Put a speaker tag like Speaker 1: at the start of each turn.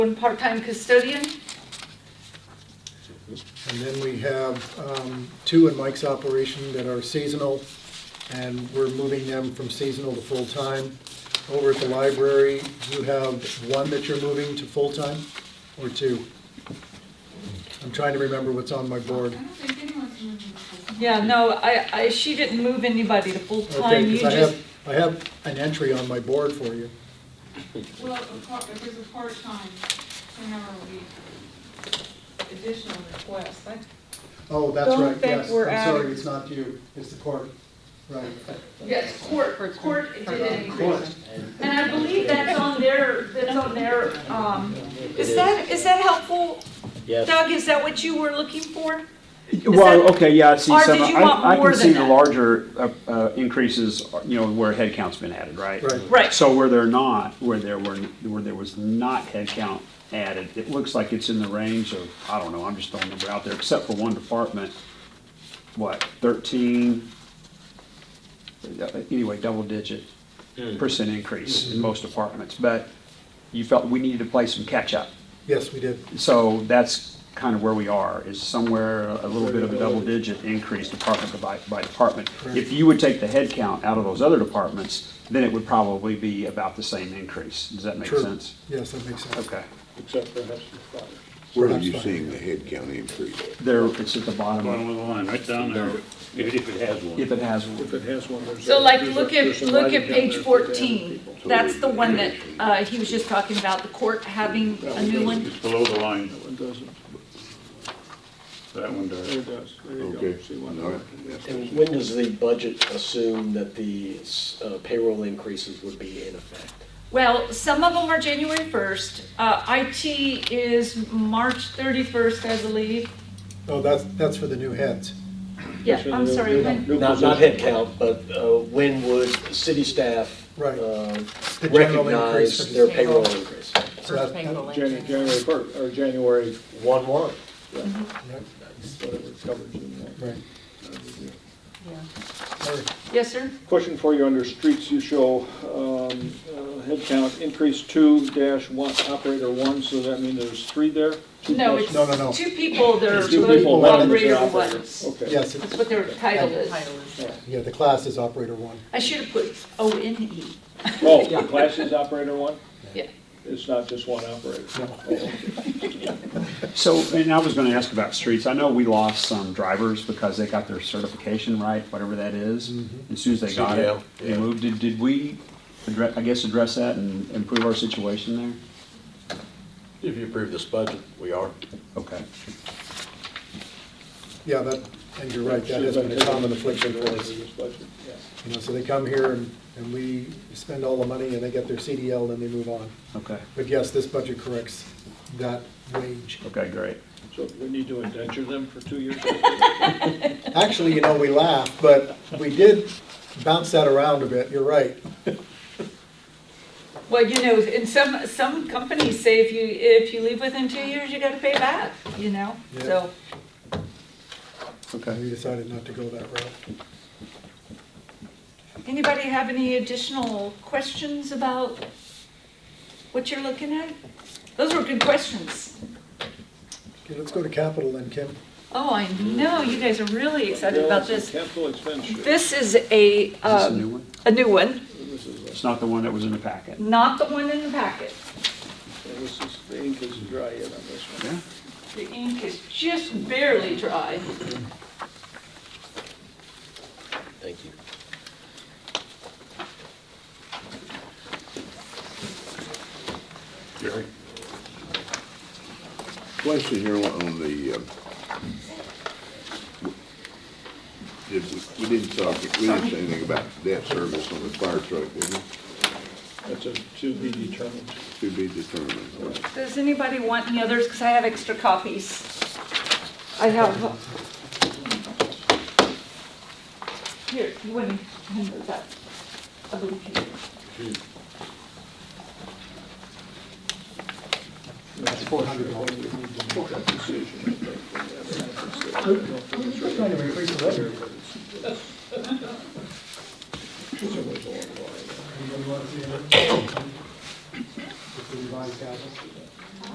Speaker 1: One part-time custodian,
Speaker 2: And then we have um, two in Mike's operation that are seasonal, and we're moving them from seasonal to full-time. Over at the library, you have one that you're moving to full-time, or two? I'm trying to remember what's on my board.
Speaker 3: I don't think anyone's moving to
Speaker 1: yeah, no, I, I, she didn't move anybody to
Speaker 2: Okay,
Speaker 1: full-time, you
Speaker 2: because I
Speaker 1: just,
Speaker 2: have, I have an entry on my board for you.
Speaker 3: Well, a part, if there's a part-time, ten hour a week additional request, I,
Speaker 2: Oh, that's
Speaker 4: Don't
Speaker 2: right,
Speaker 4: think
Speaker 2: yes.
Speaker 4: we're
Speaker 2: I'm
Speaker 4: adding-
Speaker 2: sorry, it's not you, it's the court. Right.
Speaker 1: yes, court, court did it.
Speaker 2: Court.
Speaker 1: And I believe that's on their, that's on their, um, is that, is that helpful?
Speaker 5: Yes,
Speaker 1: Doug, is that what you were looking for?
Speaker 6: Well,
Speaker 1: that-
Speaker 6: okay, yeah, I see
Speaker 1: or
Speaker 6: some,
Speaker 1: did you want
Speaker 6: I, I
Speaker 1: more
Speaker 6: can see
Speaker 1: than
Speaker 6: the
Speaker 1: that?
Speaker 6: larger uh, uh, increases, you know, where headcount's been added, right?
Speaker 2: Right.
Speaker 1: Right.
Speaker 6: So where they're not, where there were, where there was not headcount added, it looks like it's in the range of, I don't know, I'm just throwing a number out there, except for one department, what, thirteen? Uh, Anyway, double digit percent increase in most departments, but you felt we needed to play some catch-up.
Speaker 2: Yes, we did.
Speaker 6: So that's kind of where we are, is somewhere a little bit of a double-digit increase department by, by department. If you would take the head count out of those other departments, then it would probably be about the same increase. Does that make
Speaker 2: True.
Speaker 6: sense?
Speaker 2: Yes, that makes sense.
Speaker 6: Okay.
Speaker 5: except perhaps the fire.
Speaker 7: Where are
Speaker 2: That's
Speaker 7: you
Speaker 2: fine.
Speaker 7: seeing the head count increase?
Speaker 6: There, it's at the bottom,
Speaker 8: Bottom
Speaker 6: of-
Speaker 8: of the line, right down there, if if it has one.
Speaker 6: if it has,
Speaker 8: If it has one, there's.
Speaker 1: So
Speaker 8: a-
Speaker 1: like,
Speaker 8: there's a-
Speaker 1: look at,
Speaker 8: there's a
Speaker 1: look
Speaker 8: lighting
Speaker 1: at
Speaker 8: down
Speaker 1: page
Speaker 8: there for the
Speaker 1: fourteen,
Speaker 8: people.
Speaker 1: that's the one that, uh, he was just talking about, the court having a new one.
Speaker 8: It's below the line,
Speaker 4: That one doesn't.
Speaker 8: that one does.
Speaker 4: It does. There you go.
Speaker 7: Okay.
Speaker 4: See one
Speaker 7: All
Speaker 4: there.
Speaker 7: right.
Speaker 9: And when does the budget assume that the uh, payroll increases would be in effect?
Speaker 1: Well, some of them are January first, uh, IT is March thirty-first, I believe.
Speaker 2: Oh, that's, that's for the new heads.
Speaker 1: Yeah, I'm sorry, when-
Speaker 9: Not, not headcount, but uh, when would city staff
Speaker 2: Right.
Speaker 9: uh,
Speaker 2: The general increase for
Speaker 9: recognize their
Speaker 2: the-
Speaker 9: payroll increase?
Speaker 2: So that- that-
Speaker 4: January, January first, or January,
Speaker 9: One, one.
Speaker 2: Yep,
Speaker 4: whatever it covers in there.
Speaker 2: Right. Or-
Speaker 1: yes, sir?
Speaker 4: Question for you under streets, you show, um, uh, head count increase two dash one, operator one, so that means there's three there? Two
Speaker 1: No,
Speaker 4: plus-
Speaker 1: it's
Speaker 2: No, no, no.
Speaker 1: two people, they're
Speaker 4: There's two people, one of them is
Speaker 1: operator
Speaker 4: an
Speaker 1: one.
Speaker 4: operator.
Speaker 1: That's
Speaker 4: Okay.
Speaker 2: Yes, it's-
Speaker 1: what their title is.
Speaker 2: yeah, the class is operator one.
Speaker 1: I should have put O N E.
Speaker 4: Oh, the class is operator one?
Speaker 1: Yeah.
Speaker 4: It's not just one operator?
Speaker 6: So, and I was gonna ask about streets. I know we lost some drivers because they got their certification right, whatever that is.
Speaker 9: Mm-hmm.
Speaker 6: As soon as they got it,
Speaker 9: CDL,
Speaker 6: they moved. Did, did we, addre- I guess, address that and improve our situation there?
Speaker 9: If you approve this budget, we are.
Speaker 6: Okay.
Speaker 2: Yeah, that, and you're right, that has been a common affliction for us.
Speaker 4: This budget, yeah.
Speaker 2: You know, so they come here and, and we spend all the money and they get their CDL and then they move on.
Speaker 6: Okay,
Speaker 2: But yes, this budget corrects that wage.
Speaker 6: okay, great.
Speaker 4: So we need to indenture them for two years?
Speaker 2: Actually, you know, we laugh, but we did bounce that around a bit, you're right.
Speaker 1: Well, you know, in some, some companies say if you, if you leave within two years, you gotta pay back, you know,
Speaker 2: Yeah.
Speaker 1: so.
Speaker 2: We decided not to go that route.
Speaker 1: Anybody have any additional questions about what you're looking at? Those were good questions.
Speaker 2: Okay, let's go to capital then, Kim.
Speaker 1: Oh, I know, you guys are really excited about this.
Speaker 4: Capital expenditure.
Speaker 1: This is a,
Speaker 6: Is this a
Speaker 1: um,
Speaker 6: new one?
Speaker 1: a new one,
Speaker 4: This is
Speaker 6: It's not the one that was in the packet.
Speaker 1: not the one in the packet.
Speaker 4: Yeah, This is, the ink is dry yet on this one.
Speaker 1: The ink is just barely dry.
Speaker 9: Thank you.
Speaker 8: Jerry?
Speaker 7: Question here on the, um, did, we we didn't talk, we didn't say anything about debt service on the fire truck, did we?
Speaker 4: That's a to be determined.
Speaker 7: To be determined.
Speaker 1: Does anybody want any others? Because I have extra copies. I have. uh, Here, you want to hand those out? I believe you.
Speaker 2: The revised capital.